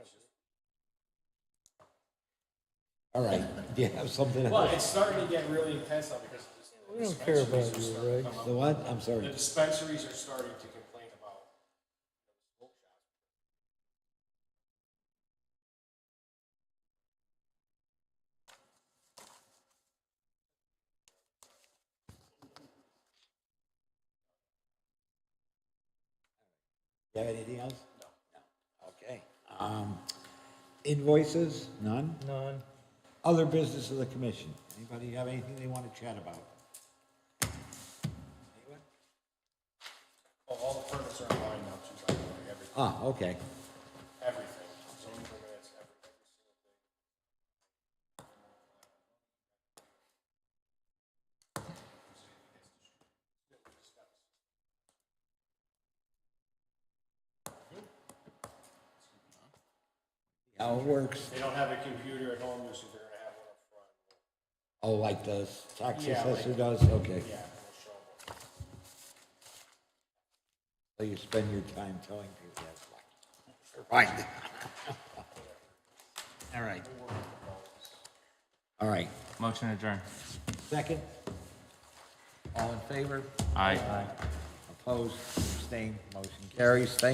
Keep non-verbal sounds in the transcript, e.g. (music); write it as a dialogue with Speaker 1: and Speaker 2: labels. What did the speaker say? Speaker 1: All right, (laughs) do you have something?
Speaker 2: Well,
Speaker 1: else?
Speaker 2: it's starting to get really intense though because the
Speaker 3: We don't care about
Speaker 2: dispensaries are
Speaker 3: you,
Speaker 2: starting to
Speaker 3: right?
Speaker 2: come up.
Speaker 1: The what? I'm
Speaker 2: The
Speaker 1: sorry.
Speaker 2: dispensaries are starting to complain about smoke shops.
Speaker 1: You have anything else? No. Okay. Um, Invoices, none?
Speaker 3: None.
Speaker 1: Other business of the commission? Anybody have anything they want to chat about?
Speaker 2: Well, all the permits are online now, too, by the way, everything,
Speaker 1: Ah, okay.
Speaker 2: everything, zoning permits, everything.
Speaker 1: How it works?
Speaker 2: They don't have a computer at home, so they're gonna have one up front.
Speaker 1: Oh, like the tax
Speaker 2: Yeah, like-
Speaker 1: assessor does? Okay.
Speaker 2: Yeah, we'll show them.
Speaker 1: So you spend your time telling people that's why. Right. (laughs) All right. All right.
Speaker 4: Motion adjourned.
Speaker 1: Second? All in favor?
Speaker 4: Aye.
Speaker 1: Opposed, abstained, motion carries. Thank